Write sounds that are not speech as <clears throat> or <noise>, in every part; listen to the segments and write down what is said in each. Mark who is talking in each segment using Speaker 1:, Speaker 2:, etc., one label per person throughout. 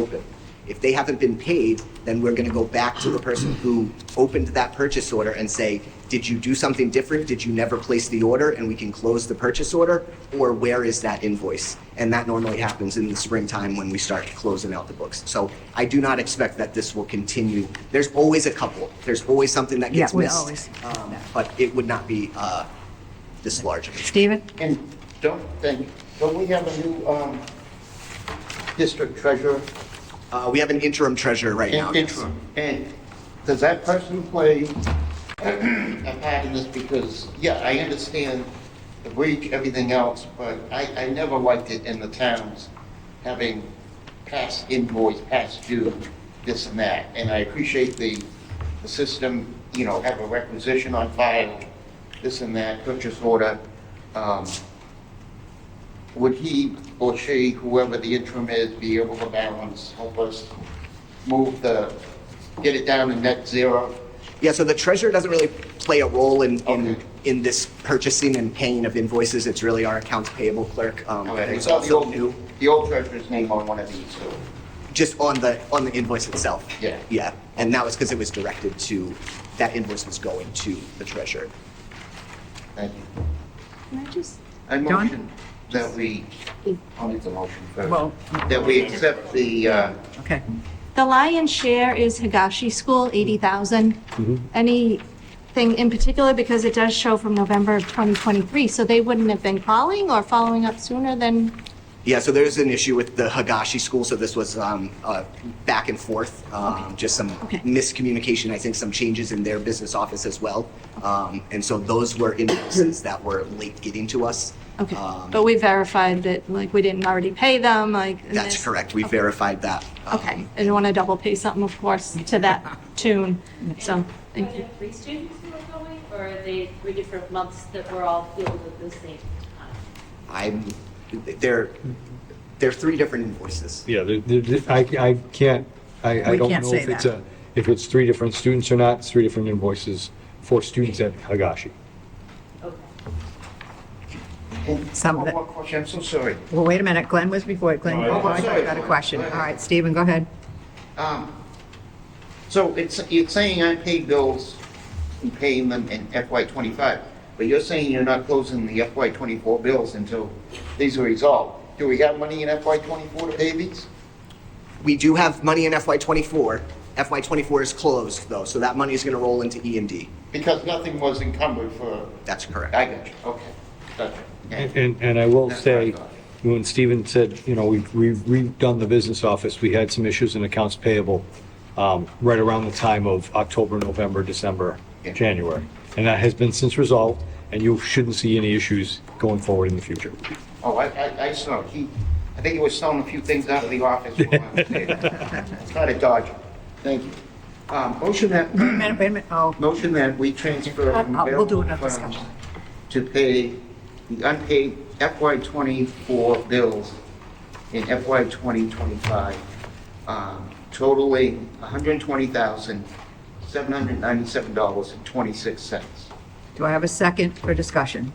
Speaker 1: open. If they haven't been paid, then we're gonna go back to the person who opened that purchase order and say, did you do something different? Did you never place the order? And we can close the purchase order, or where is that invoice? And that normally happens in the springtime when we start closing out the books. So I do not expect that this will continue. There's always a couple. There's always something that gets
Speaker 2: Yeah, we
Speaker 1: missed.
Speaker 2: always-
Speaker 1: Um, But it would not be, uh, this large. of a-
Speaker 2: Steven?
Speaker 3: And don't, then, don't we have a new, um, district treasurer?
Speaker 1: Uh, we have an interim treasurer right now.
Speaker 3: in-
Speaker 1: yes.
Speaker 3: interim? And does that person play <clears throat> a part in this? Because, yeah, I understand the breach, everything else, but I, I never liked it in the towns having past invoice, past due, this and that. And I appreciate the, the system, you know, have a requisition on file, this and that, purchase order. Um, would he or she, whoever the interim is, be able to balance, help us move the, get it down to net zero?
Speaker 1: Yeah, so the treasurer doesn't really play a role in, in,
Speaker 3: Okay.
Speaker 1: in this purchasing and paying of invoices. It's really our accounts payable clerk. um,
Speaker 3: Okay,
Speaker 1: who's
Speaker 3: it's not the
Speaker 1: also
Speaker 3: old, the old treasurer's name on one of these, so.
Speaker 1: Just on the, on the invoice itself.
Speaker 3: Yeah.
Speaker 1: Yeah, and that was because it was directed to, that invoice was going to the treasurer.
Speaker 3: Thank you.
Speaker 4: Can I just,
Speaker 3: I
Speaker 2: Don?
Speaker 3: motion that we, I'll make the motion first.
Speaker 2: Well-
Speaker 3: That we accept the, uh,
Speaker 2: Okay.
Speaker 4: the lion's share is Higashi School,
Speaker 1: Mm-hmm.
Speaker 4: 80,000. Anything in particular, because it does show from November of 2023, so they wouldn't have been calling or following up sooner than,
Speaker 1: Yeah, so there's an issue with the Higashi school, so this was um, uh, back and forth, um, just some
Speaker 4: Okay.
Speaker 1: miscommunication, I think some changes in their business office as well. Um, And so those were
Speaker 4: <clears throat>
Speaker 1: invoices that were late getting to us.
Speaker 4: okay.
Speaker 1: Um,
Speaker 4: But we verified that, like, we didn't already pay them, like. and
Speaker 1: That's
Speaker 4: this-
Speaker 1: correct, we verified that. um,
Speaker 4: Okay, I didn't want to double pay something, of course, to
Speaker 1: <laughs>
Speaker 4: that tune, so,
Speaker 5: Were
Speaker 4: thank you.
Speaker 5: there three students who were going, or are they three different months that were all filled at the same time?
Speaker 1: I'm, they're, they're three different invoices.
Speaker 6: Yeah, the- the- the- I, I can't, I,
Speaker 2: We
Speaker 6: I don't
Speaker 2: can't
Speaker 6: know
Speaker 2: say
Speaker 6: if it's
Speaker 2: that.
Speaker 6: a, if it's three different students or not, it's three different invoices for students at Hagashi.
Speaker 5: Okay.
Speaker 2: Some of
Speaker 3: one
Speaker 2: the-
Speaker 3: more question, I'm so sorry.
Speaker 2: Well, wait a minute, Glenn was before it. Glenn,
Speaker 7: Oh, yeah.
Speaker 2: oh, I
Speaker 3: Sorry,
Speaker 2: got a
Speaker 3: Glenn.
Speaker 2: question.
Speaker 3: Go
Speaker 2: All
Speaker 3: ahead.
Speaker 2: right, Stephen, go ahead.
Speaker 3: Um, So it's, you're saying I paid bills and paying them in FY twenty-five, but you're saying you're not closing the FY twenty-four bills until these are resolved. Do we have money in FY twenty-four to pay these?
Speaker 1: We do have money in FY twenty-four. FY twenty-four is closed though, so that money is gonna roll into E and D.
Speaker 3: Because nothing was encumbered for,
Speaker 1: That's
Speaker 3: I
Speaker 1: correct.
Speaker 3: got you, okay. Gotcha.
Speaker 6: And, and- and I will
Speaker 3: That's what I
Speaker 6: say,
Speaker 3: thought.
Speaker 6: when Stephen said, you know, we've, we've redone the business office, we had some issues in accounts payable um, right around the time of October, November, December,
Speaker 3: Yeah.
Speaker 6: January. And that has been since resolved, and you shouldn't see any issues going forward in the future.
Speaker 3: Oh, I, I, I saw, he, I think he was selling a few things out of the office while I was there. Try to dodge it. Thank you. Um, motion that,
Speaker 2: Wait a minute, wait a minute. Oh,
Speaker 3: Motion that we transfer
Speaker 2: Uh,
Speaker 3: from
Speaker 2: uh, we'll do
Speaker 3: available
Speaker 2: another
Speaker 3: funds
Speaker 2: discussion.
Speaker 3: to pay the unpaid FY twenty-four bills in FY twenty twenty-five, um, totaling hundred and twenty thousand, seven hundred and ninety-seven dollars and twenty-six cents.
Speaker 2: do I have a second for discussion?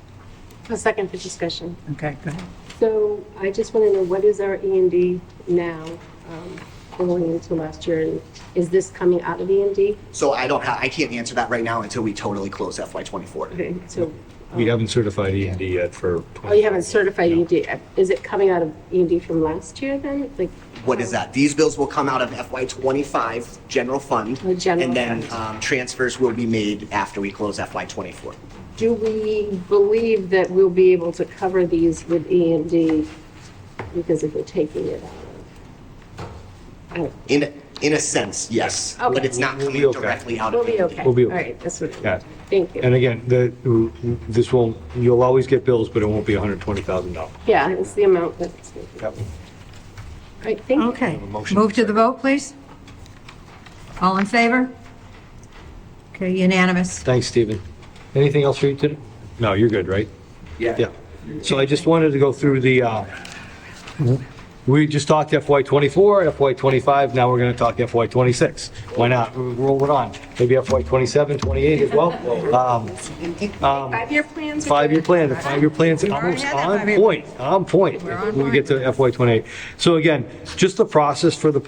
Speaker 8: A second for discussion.
Speaker 2: Okay, go ahead.
Speaker 8: So I just want to know, what is our E and D now um, going into last year? and Is this coming out of E and D?
Speaker 1: So I don't have, I can't answer that right now until we totally close FY twenty-four.
Speaker 8: Okay, so,
Speaker 6: We
Speaker 8: um,
Speaker 6: haven't certified E and D yet for.
Speaker 8: oh, you haven't certified E and D. Is it coming out of E and D from last year then? Like,
Speaker 1: What is that? These bills will come out of FY twenty-five, general fund.
Speaker 8: The general
Speaker 1: And then,
Speaker 8: fund.
Speaker 1: um, transfers will be made after we close FY twenty-four.
Speaker 8: Do we believe that we'll be able to cover these with E and D because if we're taking it out of?
Speaker 1: In, in a sense, yes,
Speaker 8: Okay.
Speaker 1: but it's not
Speaker 6: We'll be
Speaker 1: coming
Speaker 6: okay.
Speaker 1: directly out
Speaker 8: We'll
Speaker 1: of E
Speaker 8: be
Speaker 1: and D.
Speaker 8: okay.
Speaker 6: We'll be
Speaker 8: All
Speaker 6: okay.
Speaker 8: right, that's what,
Speaker 6: Yeah.
Speaker 8: thank you.
Speaker 6: And again, the, this will, you'll always get bills, but it won't be $120,000.
Speaker 8: Yeah, it's the amount that's. All right, thank you.
Speaker 2: Okay,
Speaker 6: a motion.
Speaker 2: move to the vote, please. All in favor? Okay, unanimous.
Speaker 6: Thanks, Stephen. Anything else for you today? No, you're good, right? Yeah. So I just wanted to go through the, uh, we just talked FY '24, FY '25, now we're going to talk FY '26. Why not? We'll Roll it on. Maybe FY '27, '28 as well. Um,
Speaker 8: Five-year plans? are
Speaker 6: Five-year
Speaker 8: good.
Speaker 6: plan, the five-year plan's almost
Speaker 2: already had that
Speaker 6: on
Speaker 2: five-year
Speaker 6: point, on point.
Speaker 2: We're on
Speaker 6: When we get to FY '28. So again, just the process for the